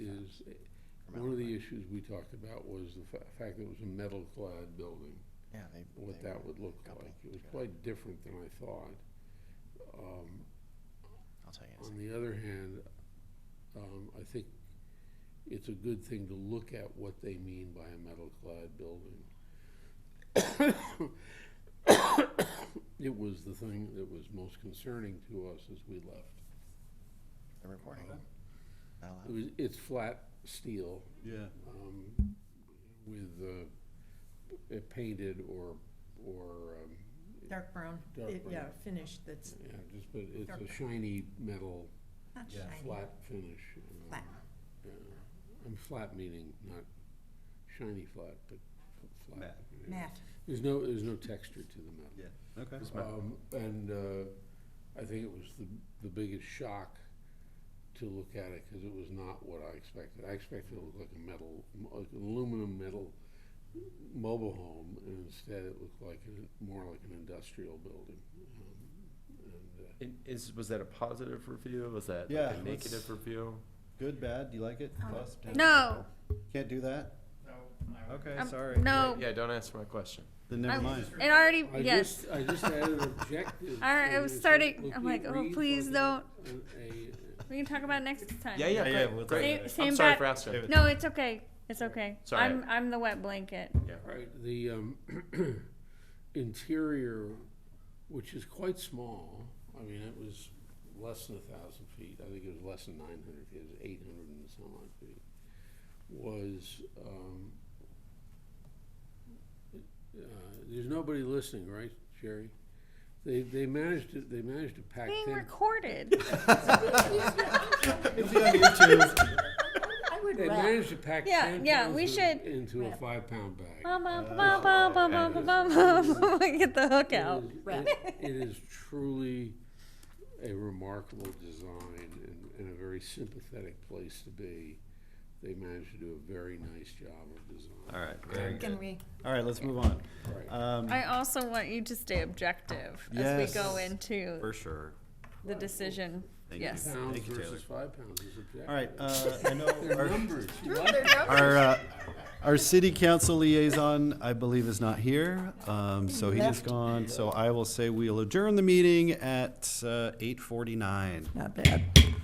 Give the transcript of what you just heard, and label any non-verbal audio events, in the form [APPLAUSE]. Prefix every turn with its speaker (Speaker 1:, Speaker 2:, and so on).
Speaker 1: was, one of the issues we talked about was the fa- fact that it was a metal-clad building,
Speaker 2: Yeah, they.
Speaker 1: what
Speaker 2: they
Speaker 1: that
Speaker 2: were
Speaker 1: would look
Speaker 2: coupled
Speaker 1: like. It was
Speaker 2: together.
Speaker 1: quite different than I thought. Um,
Speaker 2: I'll tell you. in a
Speaker 1: On
Speaker 2: second.
Speaker 1: the other hand, um, I think it's a good thing to look at what they mean by a metal-clad building. [COUGHS] It was the thing that was most concerning to us as we left.
Speaker 2: They're recording.
Speaker 1: Um,
Speaker 2: Not allowed.
Speaker 1: It was, it's flat steel,
Speaker 3: Yeah,
Speaker 1: um, with, uh, it painted or, or, um,
Speaker 4: Dark brown,
Speaker 1: Dark
Speaker 4: it-
Speaker 1: brown.
Speaker 4: yeah, finished, that's
Speaker 1: yeah, just, but it's
Speaker 4: Dark.
Speaker 1: a shiny metal,
Speaker 4: not
Speaker 3: Yeah.
Speaker 4: shiny.
Speaker 1: flat finish. um,
Speaker 4: Flat.
Speaker 1: yeah. And flat meaning not shiny flat, but flat.
Speaker 3: Matte.
Speaker 1: yeah.
Speaker 4: Matt,
Speaker 1: There's no, there's no texture to the metal.
Speaker 3: yeah, okay.
Speaker 1: Um, and, uh, I think it was the, the biggest shock to look at it, cause it was not what I expected. I expected it to look like a metal, like an aluminum metal mobile home, and instead it looked like, an- more like an industrial building. Um, And, uh,
Speaker 5: And Is, was that a positive review? Was that
Speaker 3: Yeah,
Speaker 5: like a negative
Speaker 3: let's-
Speaker 5: review?
Speaker 3: Good, bad, do you like it? Plus,
Speaker 6: Um, No.
Speaker 3: Can't do that? No. Okay,
Speaker 6: I'm-
Speaker 3: sorry.
Speaker 6: No.
Speaker 5: Yeah, don't answer my question.
Speaker 3: Then
Speaker 6: I-
Speaker 3: never mind.
Speaker 6: It already,
Speaker 1: uh, I
Speaker 6: yes.
Speaker 1: just, I just added objective.
Speaker 6: [LAUGHS] All right, I
Speaker 1: and
Speaker 6: was
Speaker 1: it said,
Speaker 6: starting-
Speaker 1: look,
Speaker 6: I'm
Speaker 1: it
Speaker 6: like, oh,
Speaker 1: reads
Speaker 6: please
Speaker 1: like a- a-
Speaker 6: We can talk about it next time.
Speaker 5: Yeah, yeah,
Speaker 3: Yeah,
Speaker 5: yeah,
Speaker 3: yeah, we'll
Speaker 5: great.
Speaker 6: talk about it.
Speaker 5: I'm
Speaker 6: Same
Speaker 5: sorry
Speaker 6: back-
Speaker 5: for asking.
Speaker 6: No, it's okay. It's okay.
Speaker 5: Sorry.
Speaker 6: I'm, I'm the wet blanket.
Speaker 1: All right, the um, [CLEARS THROAT] interior, which is quite small, I mean, it was less than a thousand feet, I think it was less than nine hundred feet, it was eight hundred and some odd feet, was, um, uh, there's nobody listening, right, Jerry? They, they managed to, they managed to pack
Speaker 6: Being
Speaker 1: ten,
Speaker 6: recorded.
Speaker 1: [LAUGHS]
Speaker 3: It's on YouTube. [LAUGHS]
Speaker 4: I would
Speaker 1: they
Speaker 4: rap.
Speaker 1: managed to pack
Speaker 6: Yeah,
Speaker 1: ten
Speaker 6: yeah,
Speaker 1: pounds
Speaker 6: we
Speaker 1: in-
Speaker 6: should-
Speaker 1: into a five-pound bag.
Speaker 6: Bum, bum, bum, bum, bum, bum, bum, bum, [LAUGHS] bum, bum. Get the hook out.
Speaker 1: It is-
Speaker 4: Right.
Speaker 1: it- It is truly a remarkable design and, and a very sympathetic place to be. They managed to do a very nice job of design.
Speaker 3: All right, very good.
Speaker 4: Can we,
Speaker 3: All right, let's move on.
Speaker 1: Right.
Speaker 3: Um,
Speaker 6: I also want you to stay objective as we go
Speaker 3: Yes.
Speaker 6: into
Speaker 3: for sure.
Speaker 6: the decision.
Speaker 3: Thank you.
Speaker 6: Yes.
Speaker 1: Pounds
Speaker 3: Thank you,
Speaker 1: versus five pounds is objective.
Speaker 3: All right,
Speaker 1: [LAUGHS]
Speaker 3: uh, I know
Speaker 1: They're
Speaker 3: our,
Speaker 1: numbers. You like
Speaker 3: our, uh, our city council liaison, I believe, is not here. Um, so he is
Speaker 4: Left.
Speaker 3: gone, so I will say we'll adjourn the meeting at, uh, eight forty-nine.
Speaker 4: not bad.